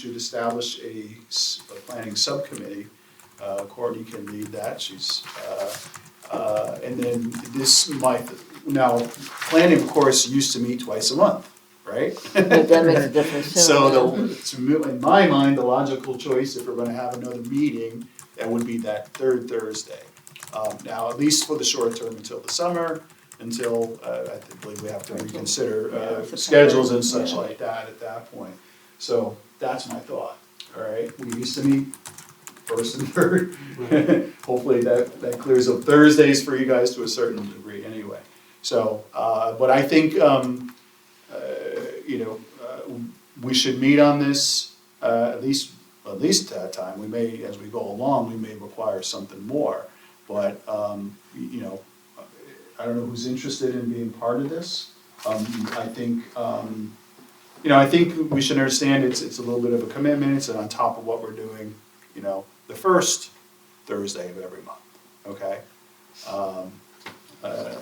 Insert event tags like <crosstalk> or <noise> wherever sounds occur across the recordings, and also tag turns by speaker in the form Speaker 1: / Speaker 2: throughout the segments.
Speaker 1: should establish a, s- a planning subcommittee. Uh, Courtney can lead that, she's, uh, uh, and then this might, now, planning, of course, used to meet twice a month, right?
Speaker 2: But that makes a difference.
Speaker 1: <laughs> So the, to me, in my mind, the logical choice, if we're gonna have another meeting, that would be that third Thursday. Um, now, at least for the short term until the summer, until, uh, I believe we have to reconsider,
Speaker 2: Yeah,
Speaker 1: uh,
Speaker 2: September,
Speaker 1: schedules and such
Speaker 2: yeah.
Speaker 1: like that at that point. So that's my thought, alright? We used to meet first and <laughs> third. Hopefully that, that clears up Thursdays for you guys to a certain degree anyway. So, uh, but I think, um, uh, you know, uh, we should meet on this, uh, at least, at least that time. We may, as we go along, we may require something more. But, um, y- you know, I don't know who's interested in being part of this. Um, I think, um, you know, I think we should understand it's, it's a little bit of a commitment, it's on top of what we're doing, you know, the first Thursday of every month, okay? Um, uh,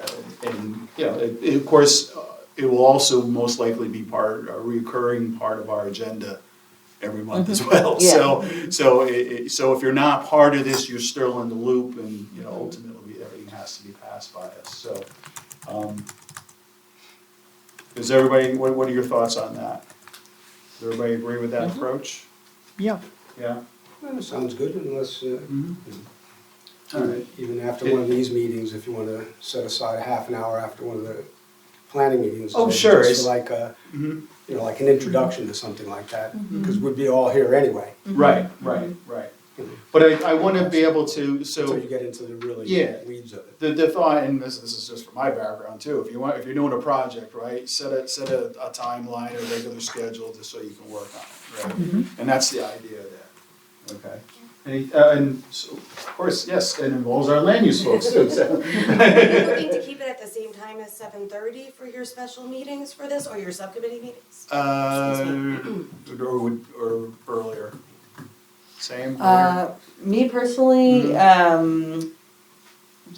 Speaker 1: and, you know, it, it, of course, uh, it will also most likely be part, a reoccurring part of our agenda every month as well.
Speaker 2: Yeah.
Speaker 1: So, so it, it, so if you're not part of this, you're still in the loop and, you know, ultimately everything has to be passed by us, so. um, Is everybody, what, what are your thoughts on that? Does everybody agree with that approach?
Speaker 3: Yeah,
Speaker 1: Yeah?
Speaker 4: Well, it sounds good unless, uh,
Speaker 1: All right.
Speaker 4: even after one of these meetings, if you want to set aside half an hour after one of the planning meetings.
Speaker 1: Oh,
Speaker 4: uh,
Speaker 1: sure, it's-
Speaker 4: just for Like a,
Speaker 1: Mhm.
Speaker 4: you know, like an introduction to something like that, because we'd be all here anyway.
Speaker 1: Right, right, right. But I, I wanna be able to, Mm-hmm. so.
Speaker 4: Until you get into the really
Speaker 1: Yeah.
Speaker 4: weeds of it.
Speaker 1: The, the thought, and this, this is just from my background too, if you want, if you're doing a project, right, set a, set a, a timeline, a regular schedule, just so you can work on it, right? And that's the idea there, okay? And, uh, and so, of course, yes, it involves our land use folks too, so.
Speaker 5: Are you looking to keep it at the same time as seven thirty for your special meetings for this or your subcommittee meetings?
Speaker 1: Uh, or would, or earlier, same, later?
Speaker 6: Uh, me personally,
Speaker 1: Mm.
Speaker 6: um,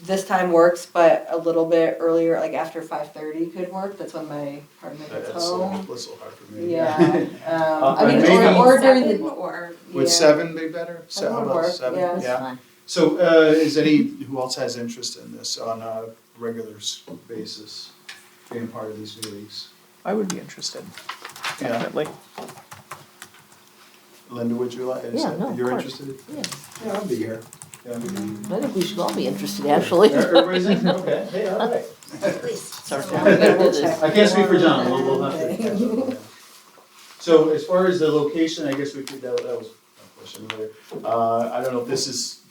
Speaker 6: this time works, but a little bit earlier, like after five thirty could work. That's when my partner
Speaker 1: That-
Speaker 6: gets
Speaker 1: That's a little,
Speaker 6: home.
Speaker 1: that's a little hard for me. <laughs>
Speaker 6: Yeah,
Speaker 1: Uh,
Speaker 6: um, I mean,
Speaker 1: maybe-
Speaker 6: or, or during
Speaker 5: Seven
Speaker 6: the.
Speaker 5: Or,
Speaker 1: Would
Speaker 6: yeah.
Speaker 1: seven be better? Se-
Speaker 6: That would
Speaker 1: how about
Speaker 6: work,
Speaker 1: seven?
Speaker 6: yeah. That's
Speaker 1: So, uh, is any, who else has interest in this on a regular s- basis, being part of these meetings?
Speaker 3: I would be interested,
Speaker 1: Yeah,
Speaker 3: definitely.
Speaker 1: Linda, would you like, is
Speaker 2: Yeah,
Speaker 1: that-
Speaker 2: no, of
Speaker 1: you're
Speaker 2: course.
Speaker 1: interested?
Speaker 4: Yeah, I'll be here.
Speaker 1: Yeah.
Speaker 2: I think we should all be interested, actually.
Speaker 1: Everybody's in, okay, hey, all right.
Speaker 2: <laughs> We're gonna do this.
Speaker 1: I can't speak for John, we'll, we'll have to. catch up on that. So as far as the location, I guess we could, that, that was a question earlier. Uh, I don't know if this is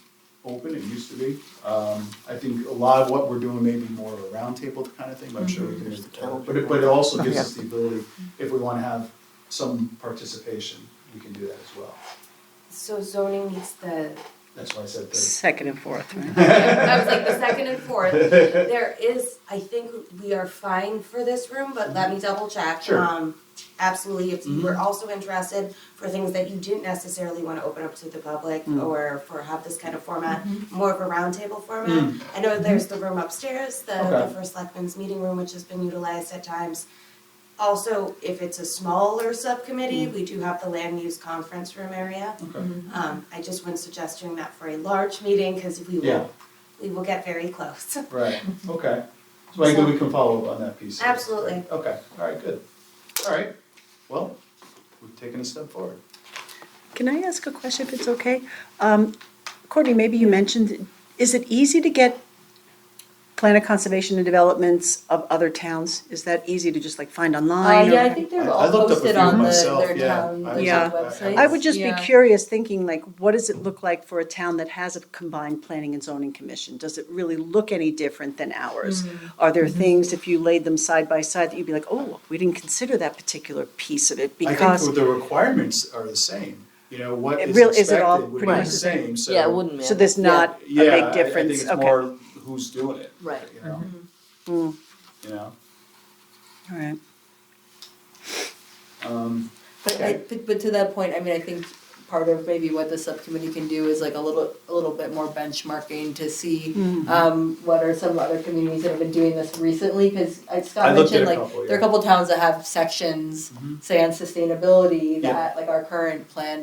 Speaker 1: open, it used to be. Um, I think a lot of what we're doing may be more of a roundtable kind of thing, but I'm sure we can,
Speaker 2: There's the calendar.
Speaker 1: but it, but it also gives us the ability, if we wanna have some participation, we can do that as well.
Speaker 5: so zoning meets the,
Speaker 1: That's why I said that.
Speaker 7: Second and fourth, right?
Speaker 5: I was like the second
Speaker 1: <laughs>
Speaker 5: and fourth. There is, I think we are fine for this room, but let me double check.
Speaker 1: Sure. Mm-hmm.
Speaker 5: Um, Absolutely, if you were also interested for things that you didn't necessarily want to open up to the public
Speaker 1: Mm.
Speaker 5: or for have this kind of format, more of a roundtable format.
Speaker 1: Mm.
Speaker 5: I know there's the room upstairs, the, the
Speaker 1: Okay.
Speaker 5: first selectmen's meeting room, which has been utilized at times. Also, if it's a smaller subcommittee,
Speaker 1: Mm.
Speaker 5: we do have the land use conference room area.
Speaker 1: Okay.
Speaker 5: Um, I just was suggesting that for a large meeting, because we
Speaker 1: Yeah.
Speaker 5: will, we will get very close. <laughs>
Speaker 1: Right, okay. So I think we can follow up on that piece. of it.
Speaker 5: Absolutely.
Speaker 1: Okay, all right, good. All right, well, we've taken a step forward.
Speaker 7: Can I ask a question if it's okay? Um, Courtney, maybe you mentioned, is it easy to get plan of conservation and developments of other towns? Is that easy to just like find
Speaker 6: Uh,
Speaker 7: online? or-
Speaker 6: yeah, I think they're
Speaker 1: I- I
Speaker 6: all
Speaker 1: looked up a
Speaker 6: posted
Speaker 1: few
Speaker 6: on the,
Speaker 1: myself,
Speaker 6: their
Speaker 1: yeah.
Speaker 6: town,
Speaker 1: I
Speaker 6: their
Speaker 7: looked up-
Speaker 6: websites.
Speaker 7: I would just be
Speaker 6: Yeah.
Speaker 7: curious, thinking like, what does it look like for a town that has a combined planning and zoning commission? Does it really look any different than ours?
Speaker 6: Mm-hmm.
Speaker 7: Are there things, if you laid them side by side, that you'd be like, oh, we didn't consider that particular piece of it
Speaker 1: I
Speaker 7: because
Speaker 1: think the requirements are the same, you know, what
Speaker 7: It
Speaker 1: is
Speaker 7: real- is it all
Speaker 1: expected would be
Speaker 7: pretty
Speaker 1: the
Speaker 7: much the same?
Speaker 1: same, so.
Speaker 2: Yeah, it
Speaker 6: Mm,
Speaker 2: wouldn't matter.
Speaker 7: So there's not a
Speaker 1: Yeah, I-
Speaker 7: big
Speaker 1: I
Speaker 7: difference,
Speaker 1: think it's
Speaker 7: okay,
Speaker 1: more
Speaker 7: all
Speaker 1: who's doing it.
Speaker 2: Right.
Speaker 1: You know?
Speaker 7: Mm-hmm.
Speaker 1: You know,
Speaker 7: right.
Speaker 1: um,
Speaker 6: But I, but, but to that point, I mean, I think part of maybe what the subcommittee can do is like a little, a little bit more benchmarking to see,
Speaker 1: Mm-hmm.
Speaker 6: um, what are some other communities that have been doing this recently, cause uh,
Speaker 1: I
Speaker 6: Scott
Speaker 1: looked at
Speaker 6: mentioned
Speaker 1: a
Speaker 6: like,
Speaker 1: couple,
Speaker 6: there are a
Speaker 1: yeah. Mm-hmm.
Speaker 6: couple towns that have sections, say on sustainability,
Speaker 1: Yeah.
Speaker 6: that like our current plan